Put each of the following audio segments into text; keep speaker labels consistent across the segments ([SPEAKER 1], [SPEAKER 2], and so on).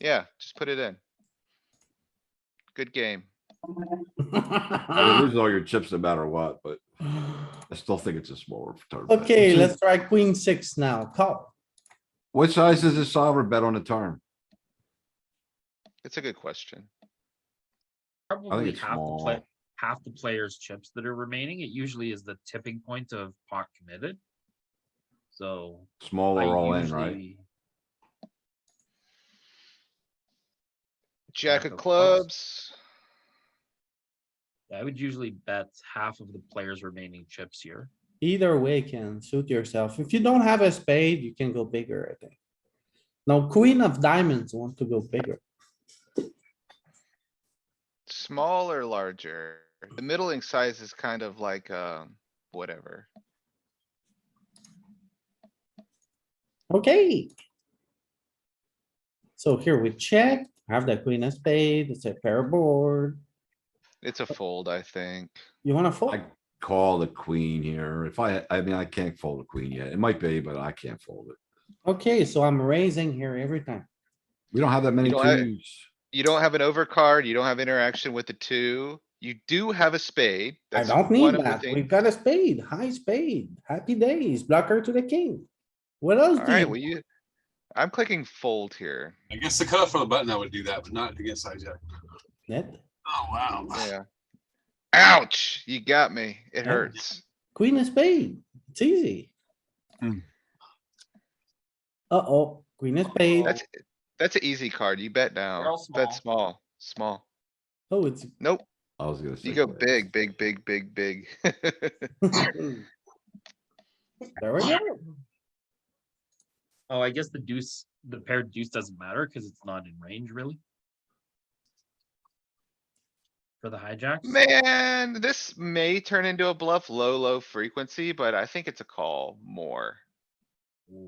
[SPEAKER 1] Yeah, just put it in. Good game.
[SPEAKER 2] Ah.
[SPEAKER 3] I mean, Losing all your chips no matter what, but I still think it's a smaller turn. bet.
[SPEAKER 2] Okay, let's try queen six now. Call.
[SPEAKER 3] What size is a solver bet on the turn?
[SPEAKER 1] It's a good question.
[SPEAKER 4] Probably
[SPEAKER 3] it's
[SPEAKER 4] half the play,
[SPEAKER 3] small.
[SPEAKER 4] half the players' chips that are remaining. It usually is the tipping point of pot committed. So.
[SPEAKER 3] Small
[SPEAKER 4] I
[SPEAKER 3] or all in, right?
[SPEAKER 4] usually-
[SPEAKER 1] Jack of
[SPEAKER 4] of clubs.
[SPEAKER 1] clubs.
[SPEAKER 4] I would usually bet half of the players' remaining chips here.
[SPEAKER 2] Either way can suit yourself. If you don't have a spade, you can go bigger, I think. Now queen of diamonds want to go bigger.
[SPEAKER 1] Small or larger? The middling size is kind of like, um, whatever.
[SPEAKER 2] Okay. So here we check, have the queen of spade, it's a pair board.
[SPEAKER 1] It's a fold, I think.
[SPEAKER 2] You wanna fold?
[SPEAKER 3] I call the queen here. If I, I mean, I can't fold the queen yet. It might be, but I can't fold it.
[SPEAKER 2] Okay, so I'm raising here every time.
[SPEAKER 3] We don't have that many
[SPEAKER 1] don't have-
[SPEAKER 3] twos.
[SPEAKER 1] You don't have an overcard, you don't have interaction with the two. You do have a spade.
[SPEAKER 2] I
[SPEAKER 1] That's
[SPEAKER 2] don't
[SPEAKER 1] one
[SPEAKER 2] need
[SPEAKER 1] of the
[SPEAKER 2] that. We've
[SPEAKER 1] things.
[SPEAKER 2] got a spade, high spade, happy days, blocker to the king. What else do
[SPEAKER 1] Alright, well,
[SPEAKER 2] you?
[SPEAKER 1] you, I'm clicking fold here.
[SPEAKER 5] Against the cutoff for the button, I would do that, but not against hijack.
[SPEAKER 2] Net?
[SPEAKER 5] Oh, wow.
[SPEAKER 1] Yeah. Ouch, you got me. It
[SPEAKER 2] Yeah.
[SPEAKER 1] hurts.
[SPEAKER 2] Queen of spade, it's easy.
[SPEAKER 5] Hmm.
[SPEAKER 2] Uh-oh, queen of spade.
[SPEAKER 1] That's, that's an easy card. You bet now.
[SPEAKER 4] all
[SPEAKER 1] Bet small, small.
[SPEAKER 2] Oh, it's,
[SPEAKER 1] Nope,
[SPEAKER 3] I was gonna say.
[SPEAKER 1] you go
[SPEAKER 3] queen.
[SPEAKER 1] big, big, big, big, big.
[SPEAKER 2] there we go.
[SPEAKER 4] Oh, I guess the deuce, the paired deuce doesn't matter because it's not in range really. For the hijack.
[SPEAKER 1] Man, this may turn into a bluff, low, low frequency, but I think it's a call more.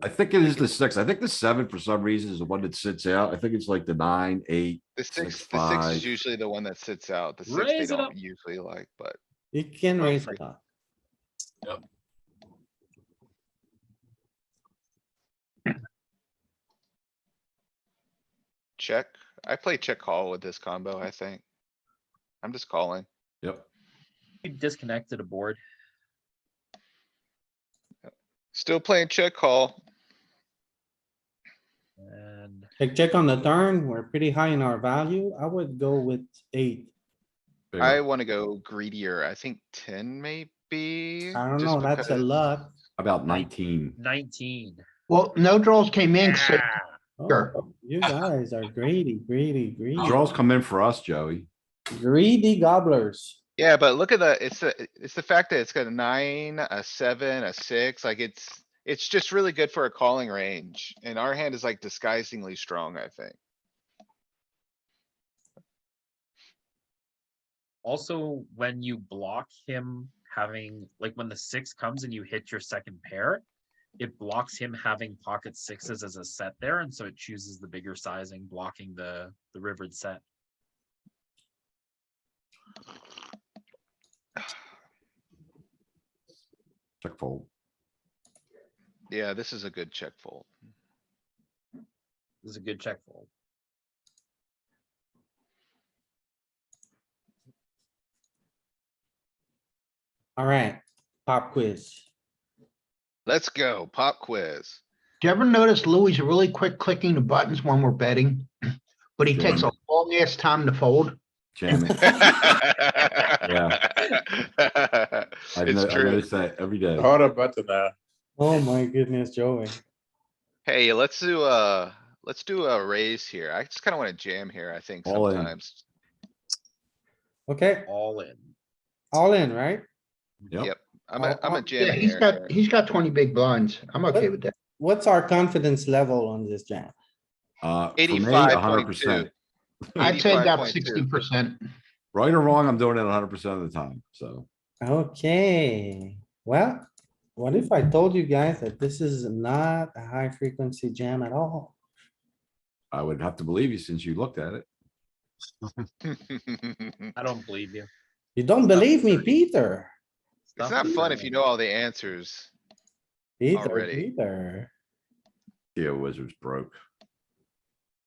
[SPEAKER 3] I think it is the six. I think the seven for some reason is the one that sits out. I think it's like the nine, eight.
[SPEAKER 1] The
[SPEAKER 3] Six,
[SPEAKER 1] six, the six
[SPEAKER 3] five.
[SPEAKER 1] is usually the one that sits out. The six they
[SPEAKER 4] Raise it up.
[SPEAKER 1] don't usually like, but
[SPEAKER 2] You can raise it up.
[SPEAKER 1] check. I play check call with this combo, I think. I'm just calling.
[SPEAKER 3] Yep.
[SPEAKER 4] We Disconnected a board.
[SPEAKER 1] Still playing check call.
[SPEAKER 4] And
[SPEAKER 2] Check, check on the turn. We're pretty high in our value. I would go with eight.
[SPEAKER 3] bigger.
[SPEAKER 1] I wanna go greedier. I think ten maybe.
[SPEAKER 2] I don't
[SPEAKER 1] just
[SPEAKER 2] know, that's a
[SPEAKER 1] because-
[SPEAKER 2] lot.
[SPEAKER 3] About nineteen.
[SPEAKER 4] nineteen.
[SPEAKER 6] Well, no draws came in, so
[SPEAKER 4] Ah,
[SPEAKER 2] Oh,
[SPEAKER 6] Sure.
[SPEAKER 2] You guys are greedy, greedy, greedy,
[SPEAKER 3] Draws come in for us, Joey.
[SPEAKER 2] greedy gobblers.
[SPEAKER 1] Yeah, but look at the, it's the, it's the fact that it's got a nine, a seven, a six, like it's, it's just really good for a calling range. And our hand is like disguisingly strong, I think.
[SPEAKER 4] Also, when you block him having, like when the six comes and you hit your second pair. It blocks him having pocket sixes as a set there, and so it chooses the bigger sizing, blocking the, the rivered set.
[SPEAKER 3] Check fold.
[SPEAKER 1] Yeah, this is a good check fold.
[SPEAKER 4] This is a good check fold.
[SPEAKER 2] Alright, pop quiz.
[SPEAKER 1] Let's go, pop quiz.
[SPEAKER 6] do you ever notice Louis really quick clicking the buttons when we're betting? But he takes a long ass time to fold.
[SPEAKER 3] Jam it. I
[SPEAKER 1] It's
[SPEAKER 3] know- I
[SPEAKER 1] true.
[SPEAKER 3] notice that every day.
[SPEAKER 2] Oh my goodness, Joey.
[SPEAKER 1] Hey, let's do uh let's do a raise here. I just kinda wanna jam here, I think
[SPEAKER 3] All in.
[SPEAKER 1] sometimes.
[SPEAKER 2] Okay,
[SPEAKER 4] All in.
[SPEAKER 2] all in, right?
[SPEAKER 3] Yep.
[SPEAKER 1] Yep. I'm a,
[SPEAKER 2] All-
[SPEAKER 1] I'm
[SPEAKER 2] all-
[SPEAKER 1] a
[SPEAKER 6] Oh, Yeah,
[SPEAKER 1] jam
[SPEAKER 6] he's
[SPEAKER 1] here.
[SPEAKER 6] got, he's got twenty big blinds. I'm okay with that.
[SPEAKER 2] What's our confidence level on this jam?
[SPEAKER 3] Uh, for me,
[SPEAKER 1] Eighty-five
[SPEAKER 3] hundred
[SPEAKER 1] point two.
[SPEAKER 3] percent.
[SPEAKER 6] I'd say about sixty percent.
[SPEAKER 3] Right or wrong, I'm doing it hundred percent of the time, so.
[SPEAKER 2] Okay, well, what if I told you guys that this is not a high frequency jam at all?
[SPEAKER 3] I would have to believe you since you looked at it.
[SPEAKER 4] I don't believe you.
[SPEAKER 2] You don't believe me, Peter?
[SPEAKER 1] It's not fun if you know all the answers.
[SPEAKER 2] Peter,
[SPEAKER 1] Already.
[SPEAKER 2] Peter.
[SPEAKER 3] Yeah, wizard's broke.